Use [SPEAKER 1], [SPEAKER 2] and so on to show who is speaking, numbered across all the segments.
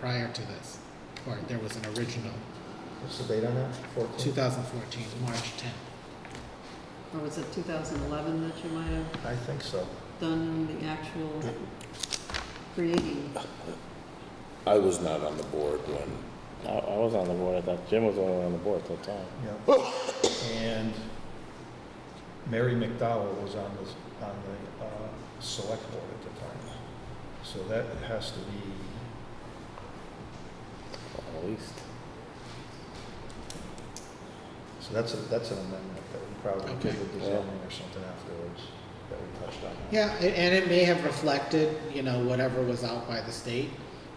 [SPEAKER 1] prior to this, or there was an original,
[SPEAKER 2] What's the date on that? Fourteen?
[SPEAKER 1] two thousand fourteen, March tenth.
[SPEAKER 3] Or was it 2011 that you might have
[SPEAKER 2] I think so.
[SPEAKER 3] done the actual creating?
[SPEAKER 4] I was not on the board when
[SPEAKER 5] I, I was on the board at that, Jim was the only one on the board at that time.
[SPEAKER 2] Yeah. And Mary McDowell was on the, on the uh, select board at the time. So that has to be,
[SPEAKER 5] At least,
[SPEAKER 2] so that's, a that's an amendment that we probably
[SPEAKER 1] Okay.
[SPEAKER 2] did with the
[SPEAKER 5] Yeah.
[SPEAKER 2] zoning or something afterwards that we touched on.
[SPEAKER 1] Yeah, a- and it may have reflected, you know, whatever was out by the state,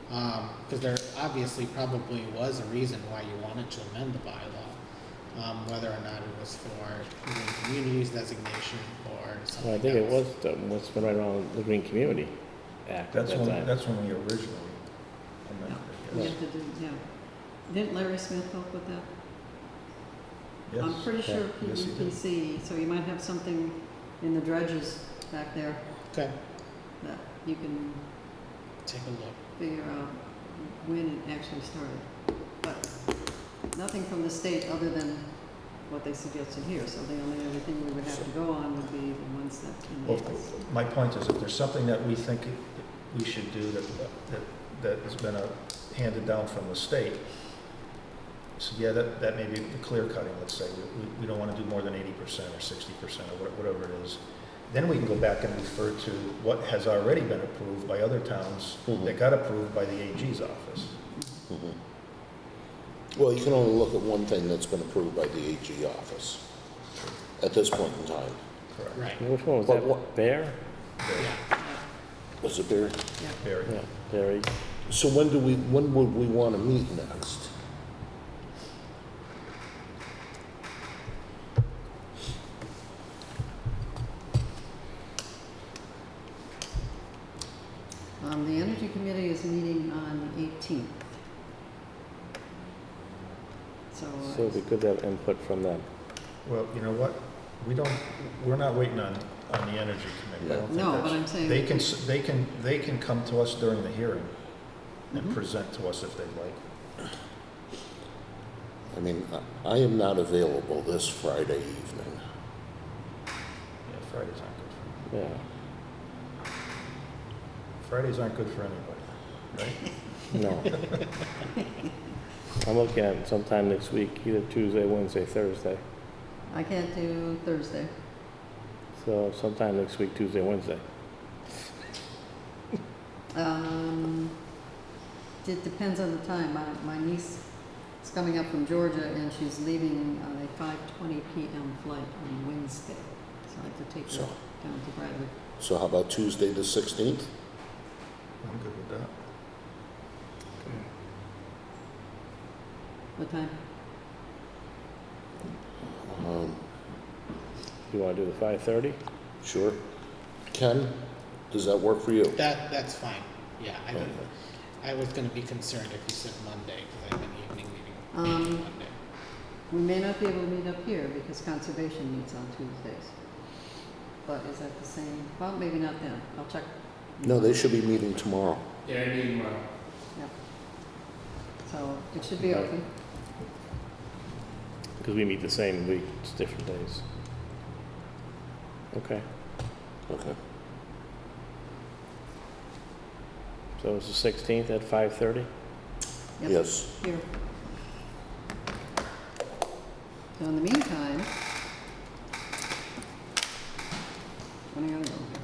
[SPEAKER 1] because there obviously probably was a reason why you wanted to amend the bylaw, um, whether or not it was for the communities designation or something
[SPEAKER 5] Well, I think it
[SPEAKER 1] else.
[SPEAKER 5] was, the- what's been right around the Green Community Act at
[SPEAKER 2] That's
[SPEAKER 5] that
[SPEAKER 2] when,
[SPEAKER 5] time.
[SPEAKER 2] that's when we originally amended it.
[SPEAKER 3] You
[SPEAKER 2] yes.
[SPEAKER 3] have to do, yeah. Didn't Larry Smith help with that? I'm
[SPEAKER 2] Yes.
[SPEAKER 3] pretty sure E
[SPEAKER 2] yeah, yes, he did.
[SPEAKER 3] PVPC, so you might have something in the dredges back there
[SPEAKER 1] Okay,
[SPEAKER 3] that you can
[SPEAKER 1] take a look.
[SPEAKER 3] figure out when it actually started. But nothing from the state other than what they suggested here, so the only other thing we would have to go on would be the ones that in the
[SPEAKER 2] Well, my point is, if there's something that we think we should do that, that, that has been uh, handed down from the state, so yeah, that, that may be the clear cutting, let's say, we, we- we don't wanna do more than eighty percent or sixty percent or wha- whatever it is. Then we can go back and refer to what has already been approved by other towns that got approved by the AG's office.
[SPEAKER 4] Well, you can only look at one thing that's been approved by the AG office at this point in time.
[SPEAKER 2] Correct.
[SPEAKER 1] Right,
[SPEAKER 5] Which one was
[SPEAKER 4] But
[SPEAKER 5] that,
[SPEAKER 4] what-
[SPEAKER 5] Bear?
[SPEAKER 1] yeah.
[SPEAKER 4] Was it Barry?
[SPEAKER 2] Barry,
[SPEAKER 5] Yeah, Barry.
[SPEAKER 4] So when do we, when would we want to meet next?
[SPEAKER 3] Um, the Energy Committee is meeting on the eighteenth. So, uh,
[SPEAKER 5] So it'd be good to have input from them.
[SPEAKER 2] well, you know what, we don't, we're not waiting on, on the energy committee, I don't think
[SPEAKER 3] no,
[SPEAKER 2] that's-
[SPEAKER 3] but I'm saying.
[SPEAKER 2] They can, s- they can, they can come to us during the hearing and
[SPEAKER 3] Mhm.
[SPEAKER 2] present to us if they'd like.
[SPEAKER 4] I mean, I- I am not available this Friday evening.
[SPEAKER 2] Yeah, Fridays aren't good for,
[SPEAKER 5] Yeah,
[SPEAKER 2] Fridays aren't good for anybody, right?
[SPEAKER 5] no. I'm looking at sometime next week, either Tuesday, Wednesday, Thursday.
[SPEAKER 3] I can't do Thursday.
[SPEAKER 5] So sometime next week, Tuesday, Wednesday.
[SPEAKER 3] Um, it depends on the time. My, my niece is coming up from Georgia and she's leaving on a five twenty PM flight on Wednesday. So I have to take her
[SPEAKER 4] So-
[SPEAKER 3] down to Bradley.
[SPEAKER 4] So how about Tuesday, the 16th?
[SPEAKER 2] I'm good with that.
[SPEAKER 3] What time?
[SPEAKER 4] Um,
[SPEAKER 5] You wanna do the five thirty?
[SPEAKER 4] Sure. Ken, does that work for you?
[SPEAKER 1] That, that's fine, yeah. I
[SPEAKER 4] Okay.
[SPEAKER 1] don't- I was gonna be concerned if you said Monday, because I have an evening meeting
[SPEAKER 3] Um,
[SPEAKER 1] meeting Monday.
[SPEAKER 3] We may not be able to meet up here because conservation meets on Tuesdays. But is that the same? Well, maybe not then. I'll check.
[SPEAKER 4] No, they should be meeting tomorrow.
[SPEAKER 6] Yeah, I mean, well,
[SPEAKER 3] Yep. So it should be open.
[SPEAKER 5] Because we meet the same week, it's different days. Okay,
[SPEAKER 4] Okay.
[SPEAKER 5] so it's the sixteenth at five thirty?
[SPEAKER 3] Yep.
[SPEAKER 4] Yes.
[SPEAKER 3] Here. So in the meantime, what do I gotta go here?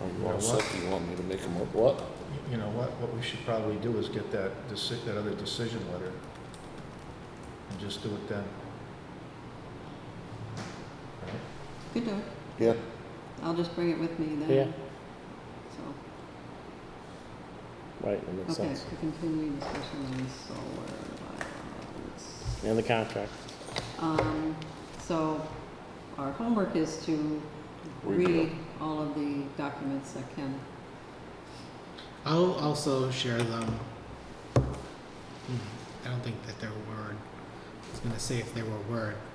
[SPEAKER 4] Are
[SPEAKER 2] You
[SPEAKER 4] you
[SPEAKER 2] know
[SPEAKER 4] all set?
[SPEAKER 2] what?
[SPEAKER 4] Do you want me to make them up? What?
[SPEAKER 2] Y- You know what, what we should probably do is get that deci, that other decision letter and just do it then. Right?
[SPEAKER 3] You do it.
[SPEAKER 4] Yeah,
[SPEAKER 3] I'll just bring it with me
[SPEAKER 5] Yeah.
[SPEAKER 3] then. So,
[SPEAKER 5] Right, that makes
[SPEAKER 3] okay,
[SPEAKER 5] sense.
[SPEAKER 3] to continue discussion on solar
[SPEAKER 5] And the contract.
[SPEAKER 3] bylaws. Um, so our homework is to
[SPEAKER 4] Review.
[SPEAKER 3] read all of the documents that Ken
[SPEAKER 1] I'll also share them. Hmm, I don't think that they're word. I was gonna say if they were word,